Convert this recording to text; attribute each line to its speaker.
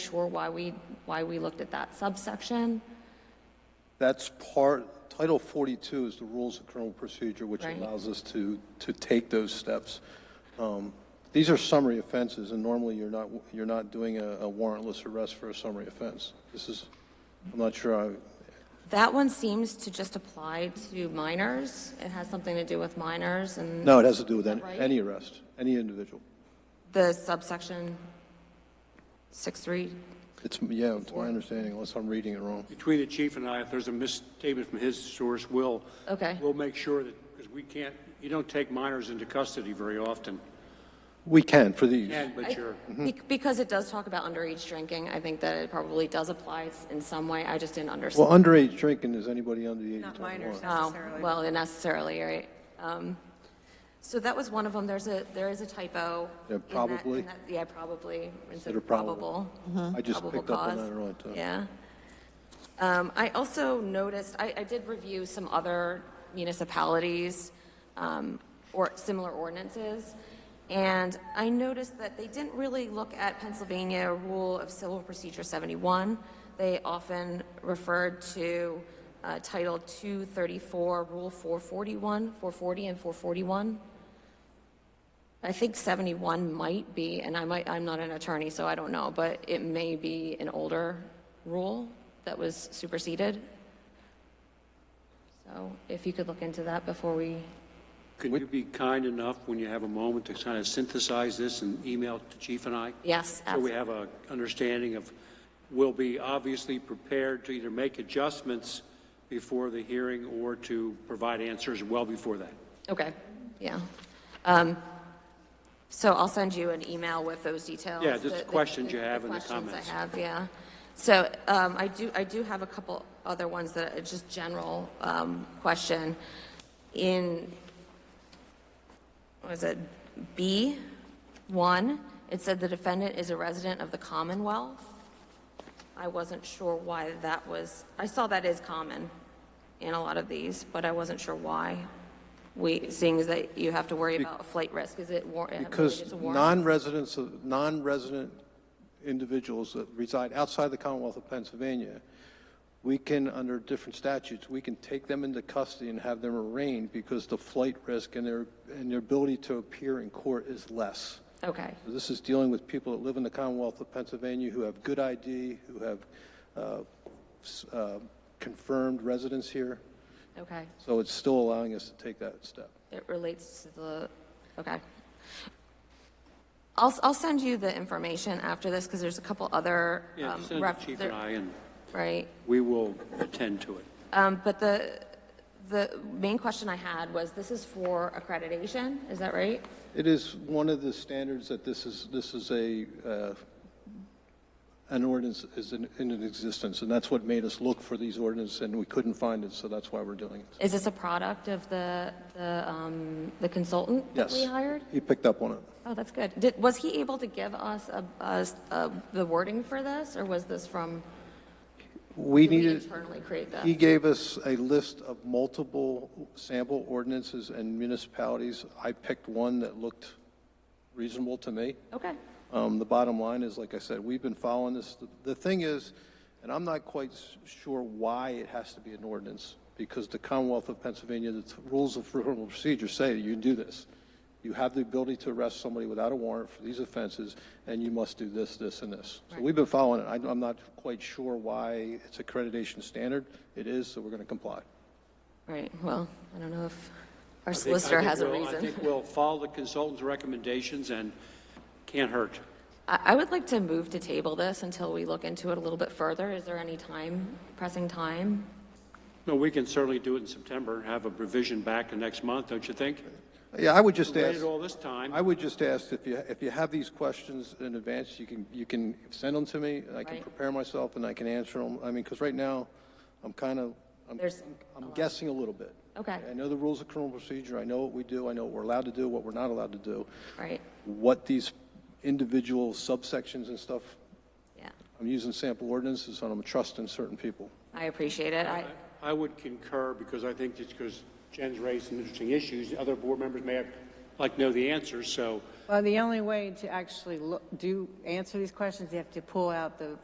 Speaker 1: sure why we, why we looked at that subsection.
Speaker 2: That's part, Title 42 is the rules of criminal procedure, which
Speaker 1: Right.
Speaker 2: allows us to, to take those steps. Um, These are summary offenses, and normally you're not, you're not doing a a warrantless arrest for a summary offense. This is, I'm not sure, I-
Speaker 1: That one seems to just apply to minors. It has something to do with minors and
Speaker 2: no, it has to do with any
Speaker 1: right?
Speaker 2: any arrest, any individual.
Speaker 1: the subsection 6.3.
Speaker 2: It's, yeah, it's my understanding, unless I'm reading it wrong.
Speaker 3: Between the chief and I, if there's a misstatement from his source, we'll.
Speaker 1: Okay.
Speaker 3: We'll make sure that, because we can't, you don't take minors into custody very often.
Speaker 2: We can for these.
Speaker 3: Can, but you're,
Speaker 2: Mm-hmm.
Speaker 1: Bec- Because it does talk about underage drinking, I think that it probably does apply s- in some way. I just didn't
Speaker 2: Well,
Speaker 1: understand.
Speaker 2: underage drinking is anybody under the age of
Speaker 4: Not
Speaker 2: 21.
Speaker 4: minors
Speaker 1: Oh,
Speaker 4: necessarily.
Speaker 1: well, necessarily, right? Um, So that was one of them. There's a, there is a typo.
Speaker 2: Yeah,
Speaker 1: in that-
Speaker 2: probably.
Speaker 1: in that- Yeah, probably. Instead
Speaker 2: That are Mm-hmm.
Speaker 1: of probable.
Speaker 2: I just
Speaker 1: probable
Speaker 2: picked up on
Speaker 1: cause.
Speaker 2: that earlier. too.
Speaker 1: Yeah. Um, I also noticed, I, I did review some other municipalities um, or similar ordinances, and I noticed that they didn't really look at Pennsylvania Rule of Civil Procedure 71. They often referred to uh, Title 234, Rule 441, 440, and 441. I think 71 might be, and I might, I'm not an attorney, so I don't know, but it may be an older rule that was superseded. So if you could look into that before we,
Speaker 3: could you be kind enough, when you have a moment, to kind of synthesize this and email it to chief and I?
Speaker 1: yes,
Speaker 3: So we
Speaker 1: abs-
Speaker 3: have a understanding of, we'll be obviously prepared to either make adjustments before the hearing or to provide answers well before that.
Speaker 1: okay, yeah. Um, So I'll send you an email with those details.
Speaker 3: Yeah, just the questions you have and the
Speaker 1: Questions
Speaker 3: comments.
Speaker 1: I have, yeah. So um, I do, I do have a couple other ones that are just general um, question. In was it B one? It said the defendant is a resident of the Commonwealth. I wasn't sure why that was, I saw that is common in a lot of these, but I wasn't sure why. We, seeing as that you have to worry about flight risk, is it war?
Speaker 2: Because non-residents, of- non-resident individuals that reside outside the Commonwealth of Pennsylvania, we can, under different statutes, we can take them into custody and have them arraigned because the flight risk and their, and their ability to appear in court is less.
Speaker 1: Okay,
Speaker 2: This is dealing with people that live in the Commonwealth of Pennsylvania who have good ID, who have uh, s- uh, confirmed residence here.
Speaker 1: okay.
Speaker 2: So it's still allowing us to take that step.
Speaker 1: It relates to the, okay. I'll, I'll send you the information after this because there's a couple other.
Speaker 3: Yeah,
Speaker 1: um,
Speaker 3: just send it
Speaker 1: ref-
Speaker 3: to chief
Speaker 1: there-
Speaker 3: and I, and
Speaker 1: Right.
Speaker 3: we will attend to it.
Speaker 1: Um, But the, the main question I had was, this is for accreditation, is that right?
Speaker 2: It is one of the standards that this is, this is a, uh, an ordinance is in in existence, and that's what made us look for these ordinances, and we couldn't find it, so that's why we're doing it.
Speaker 1: Is this a product of the, the um, the consultant that
Speaker 2: Yes.
Speaker 1: we hired?
Speaker 2: He picked up on it.
Speaker 1: Oh, that's good. Did, was he able to give us a- us, uh, the wording for this, or was this from,
Speaker 2: We
Speaker 1: did we
Speaker 2: needed,
Speaker 1: internally create
Speaker 2: he
Speaker 1: that?
Speaker 2: gave us a list of multiple sample ordinances and municipalities. I picked one that looked reasonable to me.
Speaker 1: Okay,
Speaker 2: Um, The bottom line is, like I said, we've been following this. The- The thing is, and I'm not quite s- sure why it has to be an ordinance, because the Commonwealth of Pennsylvania, the rules of criminal procedure say you do this. You have the ability to arrest somebody without a warrant for these offenses, and you must do this, this, and this. So we've been following it. I- I'm not quite sure why it's accreditation standard. It is, so we're going to comply.
Speaker 1: right, well, I don't know if our
Speaker 3: I think- I
Speaker 1: solicitor
Speaker 3: think
Speaker 1: has a
Speaker 3: we'll- I
Speaker 1: reason.
Speaker 3: think we'll follow the consultant's recommendations and can't hurt.
Speaker 1: I, I would like to move to table this until we look into it a little bit further. Is there any time, pressing time?
Speaker 3: No, we can certainly do it in September and have a revision back the next month, don't you think?
Speaker 2: Yeah, I would just ask.
Speaker 3: Waited all this time.
Speaker 2: I would just ask if you, if you have these questions in advance, you can, you can send them to me, and I can
Speaker 1: Right.
Speaker 2: prepare myself and I can answer them. I mean, because right now, I'm kind of, I'm,
Speaker 1: There's
Speaker 2: I'm guessing a little bit.
Speaker 1: Okay.
Speaker 2: I know the rules of criminal procedure, I know what we do, I know what we're allowed to do, what we're not allowed to do,
Speaker 1: Right,
Speaker 2: what these individual subsections and stuff,
Speaker 1: yeah,
Speaker 2: I'm using sample ordinances, and I'm trusting certain people.
Speaker 1: I appreciate it. I,
Speaker 3: I would concur because I think it's because Jen's raised some interesting issues. Other board members may have, like, know the answers, so
Speaker 5: Well, the only way to actually look, do, answer these questions, you have to pull out the